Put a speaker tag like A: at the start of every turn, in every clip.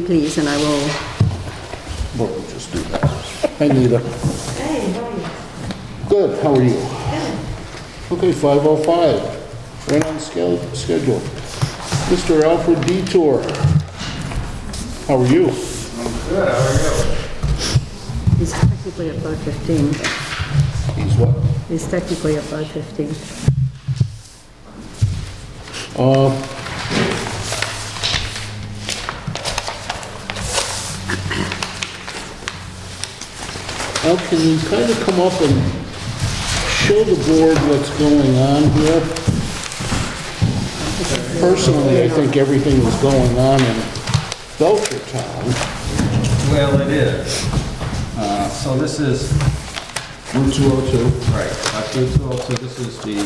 A: please, and I will,
B: Well, we'll just do that. Hi, Nita. Hey, how are you? Good, how are you? Okay, 5:05, right on scale- schedule. Mr. Alfred Detour, how are you?
A: he's technically above 15.
B: He's what?
A: He's technically above 15.
B: Al, can you kind of come up and show the board what's going on here? Personally, I think everything that's going on in Belcher Town
C: Well, it is. Uh, So this is... Route 202. Right, that's Route 202, this is the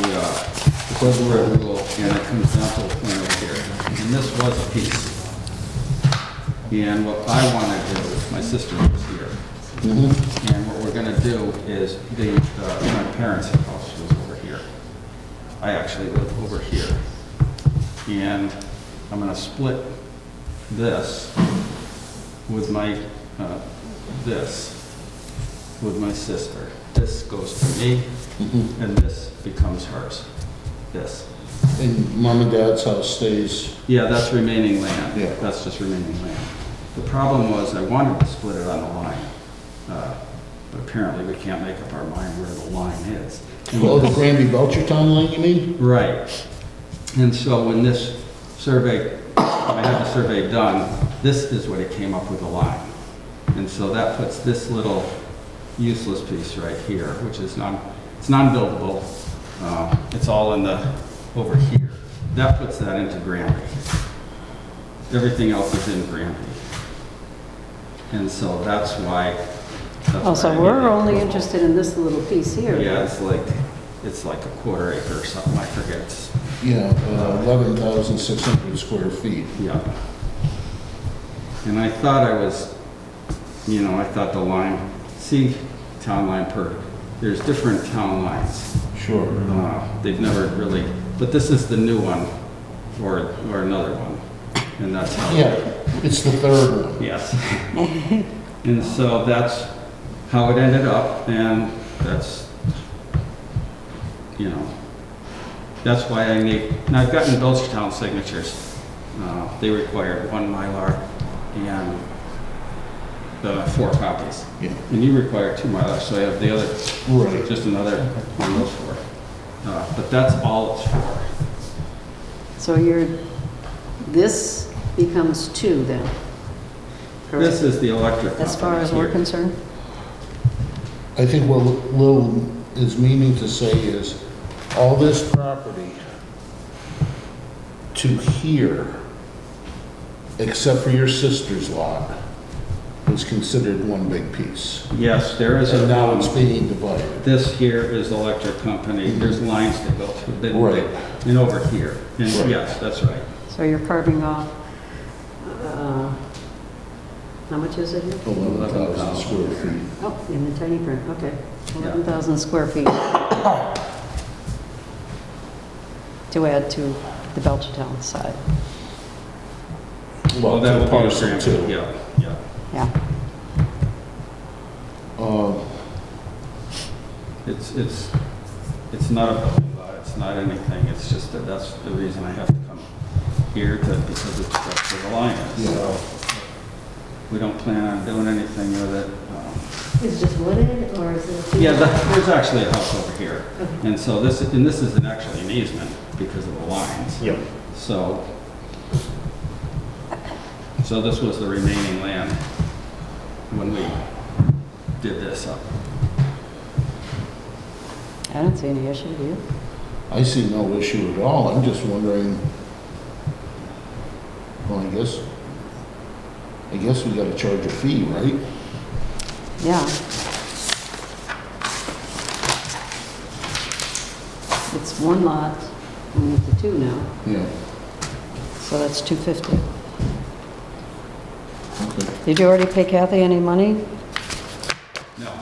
C: Quebra rule, and it comes down to a point over here. And this was a piece. And what I want to do, my sister was here. And what we're going to do is, the, uh, my parents' house was over here. I actually live over here. And I'm going to split this with my, uh, this, with my sister. This goes to me,
B: Mm-hmm.
C: and this becomes hers. This.
B: and mom and dad's house stays,
C: Yeah, that's remaining land.
B: Yeah.
C: That's just remaining land. The problem was, I wanted to split it on the line, uh, but apparently we can't make up our mind where the line is. And
B: oh, the
C: this-
B: Granby Belcher Town line, you mean?
C: Right. And so when this survey, when I had the survey done, this is what it came up with a line. And so that puts this little useless piece right here, which is non, it's non-buildable. Uh, It's all in the, over here. That puts that into Granby. Everything else is in Granby. And so that's why. that's
A: Oh, so
C: why I
A: we're
C: needed-
A: only interested in this little piece here.
C: Yeah, it's like, it's like a quarter acre or something, I forget. It's-
B: Yeah, uh, eleven thousand six hundred square feet.
C: Yeah. And I thought I was, you know, I thought the line, see, town line per, there's different town lines.
B: Sure.
C: Uh, They've never really, but this is the new one, or, or another one, and that's how.
B: Yeah, it's the third one.
C: Yes. And so that's how it ended up, and that's, you know, that's why I need, and I've gotten Belchertown signatures. Uh, They required one Mylar and the four copies.
B: Yeah.
C: And you require two Mylars, so I have the other
B: Right.
C: just another one of those four. Uh, But that's all it's for.
A: So you're, this becomes two then? correct?
C: This is the electric
A: As far
C: company
A: as we're
C: here.
A: concerned?
B: I think what Lil is meaning to say is, all this property to here, except for your sister's lot, was considered one big piece.
C: Yes, there is a.
B: And now it's being divided.
C: This here is electric company, there's lines that go through, that-
B: Right.
C: and over here, and
B: Right.
C: yes, that's right.
A: So you're carving off, uh, how much is it here?
C: Oh.
B: Eleven thousand square feet.
A: Oh, in the tiny print, okay.
C: Yeah.
A: 11,000 square feet. To add to the Belchertown side,
C: Well,
B: Lot
C: that
B: to
C: would be a
B: parcel
C: grand-
B: two.
C: Yeah, yeah.
A: yeah.
C: It's, it's, it's not a building lot, it's not anything, it's just that that's the reason I have to come here, to because it's that's where the line is, so we don't plan on doing anything with it. um,
A: Is it just wooded, or is
C: Yeah, the- there's actually a house over here, and so this, and this is an- actually an easement because of the lines.
B: Yep.
C: So, so this was the remaining land when we did this up.
A: I don't see any issue, do you?
B: I see no issue at all, I'm just wondering, well, I guess, I guess we gotta charge a fee, right?
A: Yeah. It's one lot, we need the two now,
B: Yeah,
A: so that's 250.
B: okay.
A: Did you already pay Kathy any money?
C: No,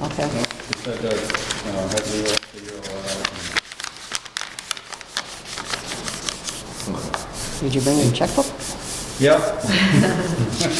A: Okay,
C: it said that, uh, had to go up to your, uh,
A: did you bring your checkbook?
C: Yep.